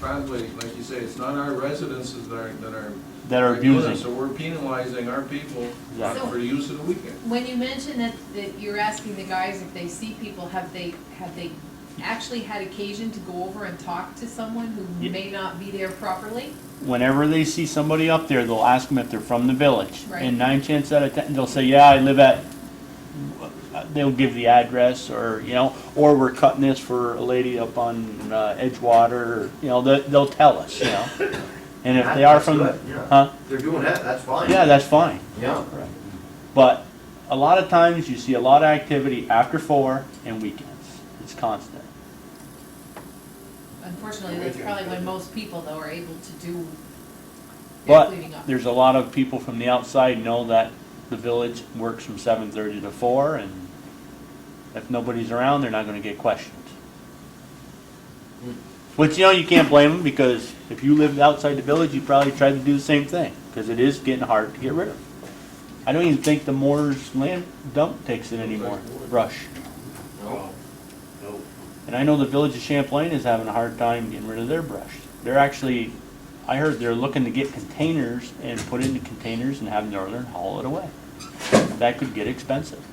probably, like you say, it's not our residences that are, that are. that are doing it, abusing. So we're penalizing our people Yeah. for the use of the weekend. When you mentioned that, that you're asking the guys if they see people, have they, have they actually had occasion to go over and talk to someone who Ye- may not be there properly? Whenever they see somebody up there, they'll ask them if they're from the village. Right. And nine chances out of ten, they'll say, yeah, I live at, they'll give the address or, you know, or we're cutting this for a lady up on uh, Edgewater, or, you know, they- they'll tell us, you know. And if they are That's from, good, yeah. huh? They're doing that, that's fine. Yeah, that's fine. Yeah. But a lot of times you see a lot of activity after four and weekends. It's constant. Unfortunately, that's probably when most people though are able to do their But cleaning up. there's a lot of people from the outside know that the village works from seven thirty to four and if nobody's around, they're not gonna get questioned. Which, you know, you can't blame them because if you lived outside the village, you probably tried to do the same thing, cause it is getting hard to get rid of. I don't even think the Moore's land dump takes it anymore, brush. No. And I know the village of Champlain is having a hard time getting rid of their brush. They're actually, I heard they're looking to get containers and put it into containers and have Northern haul it away. That could get expensive.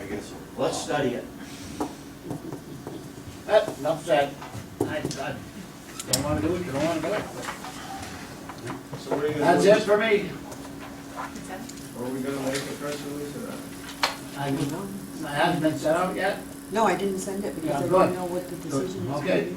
I guess so. Let's study it. That, enough said. I, I don't wanna do it, you don't wanna do it. So what are you gonna That's do? it for me. Are we gonna make a press release or not? I, I haven't been sent out yet. No, I didn't send it "Oh, Yeah, because I good. didn't know what the Good. decision was. Okay.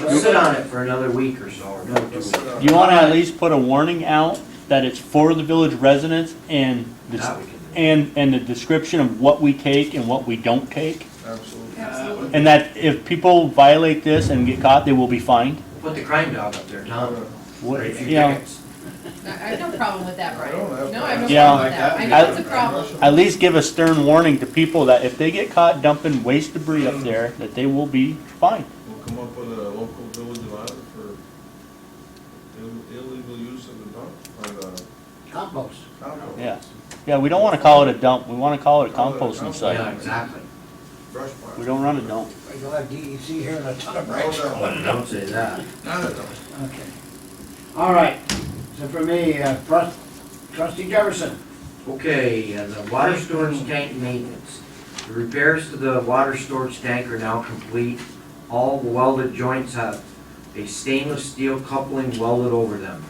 Let's sit on it for another week or so, or no, Let's two. sit down. You wanna at least put a warning out that it's for the village residents and, the- That we can do. and, and the description of what we take and what we don't take. Absolutely. Absolutely. And that if people violate this and get caught, they will be fined. Put the crime dog up there, Tom. What- Right, a few you know, tickets. I I have no problem with that, I Brian. don't have No, I have no Yeah. problem with that. I know it's a problem. at least give a stern warning to people that if they get caught dumping waste debris up there, that they will be fined. We'll come up with a local village allowance for ill- illegal use of the dump or the Compost. compost. Yeah. Yeah, we don't wanna call it a dump, we wanna call it a Call it a composting dump. Yeah, site. exactly. Brush pile. We don't run a dump. You'll have DEC here in a ton of No bricks. Oh, dump. Don't say that. Not a dump. Okay. All right, so for me, uh, trust- trustee Jefferson. Okay, and the water storage tank maintenance. The repairs to the water storage tank are now complete. All welded joints have a stainless steel coupling welded over them.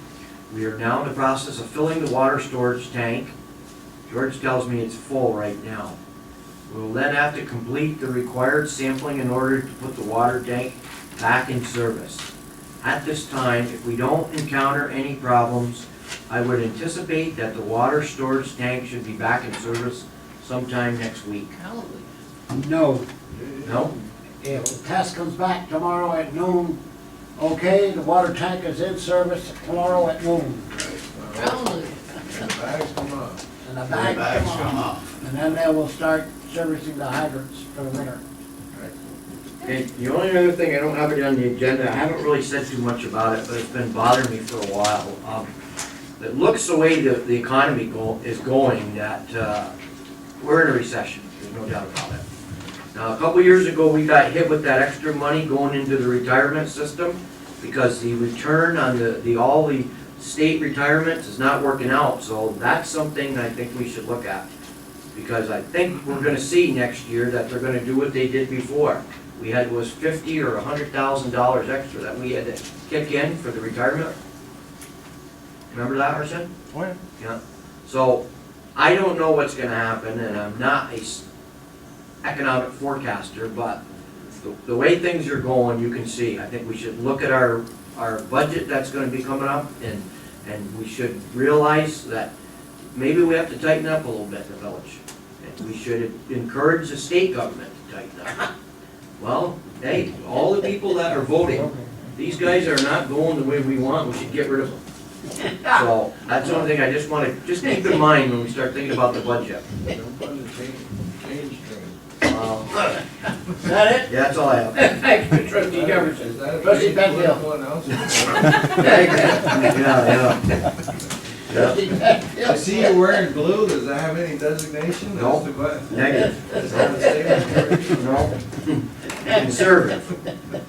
We are now in the process of filling the water storage tank. George tells me it's full right now. We'll then have to complete the required sampling in order to put the water tank back in service. At this time, if we don't encounter any problems, I would anticipate that the water storage tank should be back in service sometime next week. Hallelujah. No. No? If the test comes back tomorrow at noon, okay, the water tank is in service tomorrow at noon. Hallelujah. And the bags come up. And the bags come off. And then they will start servicing the hydrants for the winter. And the only other thing, I don't have it on the agenda, I haven't really said too much about it, but it's been bothering me for a while. Um, It looks the way the, the economy go, is going, that, uh, we're in a recession, there's no doubt about it. Now, a couple years ago, we got hit with that extra money going into the retirement system because the return on the, the, all the state retirements is not working out, so that's something I think we should look at. Because I think we're gonna see next year that they're gonna do what they did before. We had was fifty or a hundred thousand dollars extra that we had to kick in for the retirement. Remember that, Arson? Yeah, so I don't know what's gonna happen and I'm not a s- economic forecaster, but the, the way things are going, you can see, I think we should look at our, our budget that's gonna be coming up and, and we should realize that maybe we have to tighten up a little bit in the village. And we should encourage the state government to tighten up. Well, hey, all the people that are voting, these guys are not going the way we want, we should get rid of them. So, that's the only thing I just wanna, just keep in mind when we start thinking about the budget. Don't put a change, change train. Um, Is that it? Yeah, that's all I have. Thank you, trustee Jefferson. Is that a Trustee big Penfield. political announcement? Yeah, yeah. Yeah, I see you wearing blue, does that have any designation? No. That's the button. negative, Is that a statement? no. Conservative.